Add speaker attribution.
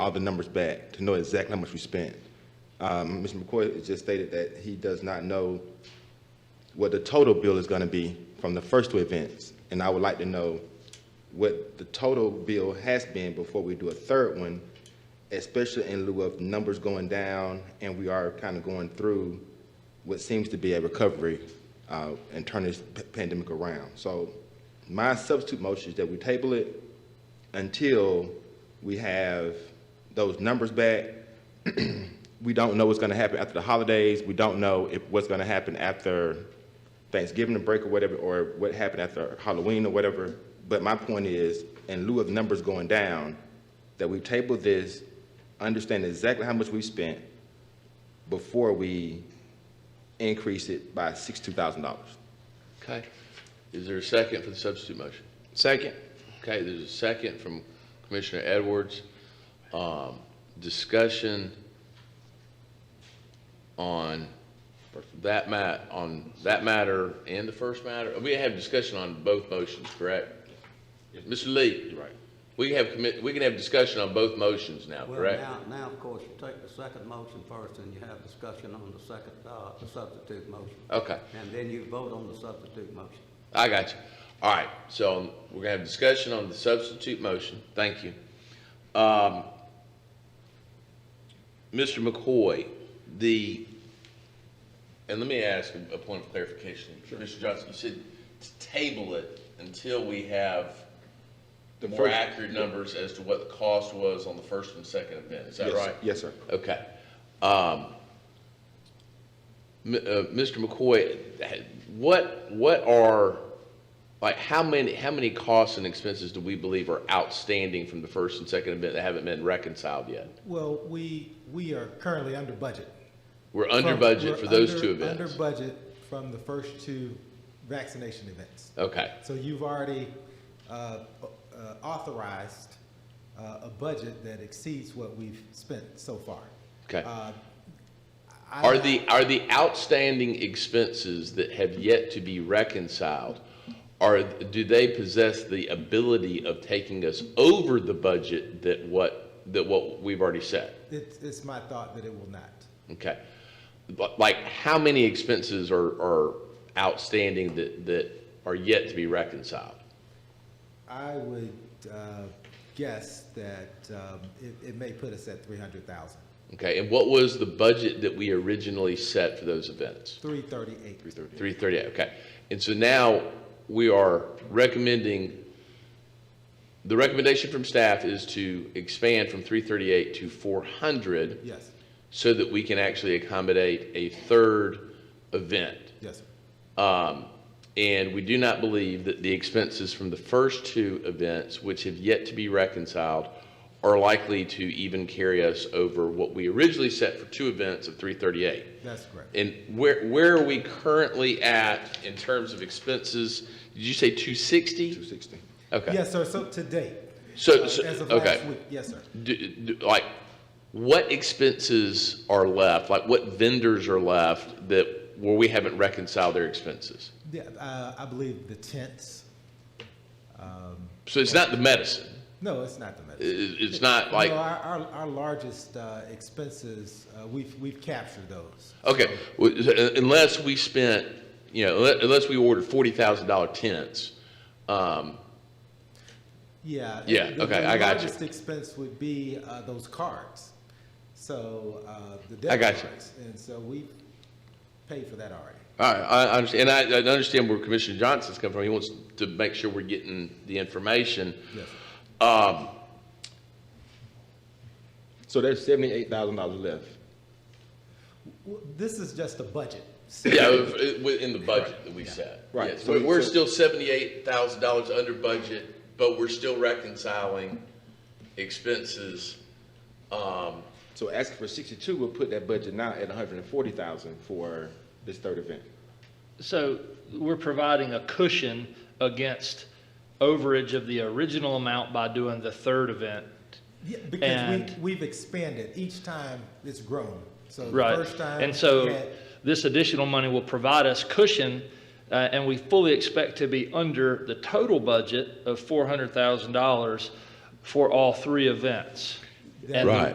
Speaker 1: all the numbers back to know exactly how much we spent. Um, Mr. McCoy just stated that he does not know what the total bill is going to be from the first two events. And I would like to know what the total bill has been before we do a third one, especially in lieu of numbers going down and we are kind of going through what seems to be a recovery uh, and turn this p- pandemic around. So my substitute motion is that we table it until we have those numbers back we don't know what's going to happen after the holidays. We don't know if what's going to happen after Thanksgiving break or whatever, or what happened after Halloween or whatever. But my point is, in lieu of numbers going down, that we table this, understand exactly how much we spent before we increase it by sixty-two thousand dollars.
Speaker 2: Okay. Is there a second for the substitute motion?
Speaker 3: Second.
Speaker 2: Okay, there's a second from Commissioner Edwards. Um, Discussion on that ma, on that matter and the first matter? We have discussion on both motions, correct? Mr. Lee? Right. We have commit, we can have discussion on both motions now, correct?
Speaker 4: Well, now, now, of course, you take the second motion first, and you have discussion on the second, uh, the substitute motion.
Speaker 2: Okay.
Speaker 4: And then you vote on the substitute motion.
Speaker 2: I got you. All right, so we're gonna have discussion on the substitute motion. Thank you. Um, Mr. McCoy, the, and let me ask a a point of clarification. Mr. Johnson, you said to table it until we have
Speaker 1: The
Speaker 2: more
Speaker 1: first-
Speaker 2: accurate numbers as to what the cost was on the first and second event. Is that
Speaker 1: Yes,
Speaker 2: right?
Speaker 1: Yes, sir.
Speaker 2: Okay. Um, M- uh, Mr. McCoy, what, what are, like, how many, how many costs and expenses do we believe are outstanding from the first and second event that haven't been reconciled yet?
Speaker 5: Well, we, we are currently under budget.
Speaker 2: We're under
Speaker 5: From-
Speaker 2: budget for
Speaker 5: we're
Speaker 2: those
Speaker 5: under-
Speaker 2: two
Speaker 5: Under
Speaker 2: events?
Speaker 5: budget from the first two vaccination events.
Speaker 2: Okay,
Speaker 5: So you've already uh, uh, authorized uh, a budget that exceeds what we've spent so far.
Speaker 2: okay.
Speaker 5: Uh, I-
Speaker 2: Are the, are the outstanding expenses that have yet to be reconciled, are, do they possess the ability of taking us over the budget that what, that what we've already set?
Speaker 5: It's, it's my thought that it will not.
Speaker 2: Okay. But like, how many expenses are, are outstanding that, that are yet to be reconciled?
Speaker 5: I would uh, guess that um, it, it may put us at 300,000,
Speaker 2: Okay, and what was the budget that we originally set for those events?
Speaker 5: 338.
Speaker 2: 338. okay. And so now we are recommending, the recommendation from staff is to expand from three thirty-eight to four hundred
Speaker 5: Yes,
Speaker 2: so that we can actually accommodate a third event.
Speaker 5: yes, sir.
Speaker 2: Um, And we do not believe that the expenses from the first two events, which have yet to be reconciled, are likely to even carry us over what we originally set for two events of 338.
Speaker 5: that's correct.
Speaker 2: And where, where are we currently at in terms of expenses? Did you say 260?
Speaker 1: Two sixty.
Speaker 2: Okay.
Speaker 5: Yes, sir, so to date.
Speaker 2: So,
Speaker 5: uh,
Speaker 2: so-
Speaker 5: As of
Speaker 2: okay.
Speaker 5: last week, yes, sir.
Speaker 2: Do- do- Like, what expenses are left? Like, what vendors are left that, where we haven't reconciled their expenses?
Speaker 5: Yeah, uh, I believe the tents.
Speaker 2: So it's not the medicine.
Speaker 5: No, it's not the medicine.
Speaker 2: It- It's not like,
Speaker 5: No, our, our, our largest uh, expenses, uh, we've, we've captured those.
Speaker 2: okay, well, unless we spent, you know, unle- unless we ordered $40,000 tents, um,
Speaker 5: Yeah.
Speaker 2: Yeah,
Speaker 5: the-
Speaker 2: okay, I got you.
Speaker 5: The largest expense would be uh, those cards. So uh, the debit
Speaker 2: I got you.
Speaker 5: cards. And so we paid for that already.
Speaker 2: All right, I I understand, and I I understand where Commissioner Johnson's coming from. He wants to make sure we're getting the information.
Speaker 5: Yes.
Speaker 2: Um,
Speaker 1: So there's seventy-eight thousand dollars left.
Speaker 5: W- This is just a budget. So-
Speaker 2: Yeah, if- it- within the budget that we set.
Speaker 1: Right.
Speaker 2: Yes,
Speaker 1: So-
Speaker 2: we- We're
Speaker 1: so-
Speaker 2: still $78,000 under budget, but we're still reconciling expenses. Um,
Speaker 1: So asking for sixty-two would put that budget now at $140,000 for this third event.
Speaker 6: So we're providing a cushion against overage of the original amount by doing the third event.
Speaker 5: Yeah, Because
Speaker 6: And-
Speaker 5: we, we've expanded. Each time it's grown. So the
Speaker 6: Right.
Speaker 5: first time.
Speaker 6: And
Speaker 5: we
Speaker 6: so
Speaker 5: had-
Speaker 6: this additional money will provide us cushion, uh, and we fully expect to be under the total budget of $400,000 for all three events.
Speaker 7: that
Speaker 8: And the-
Speaker 5: Right.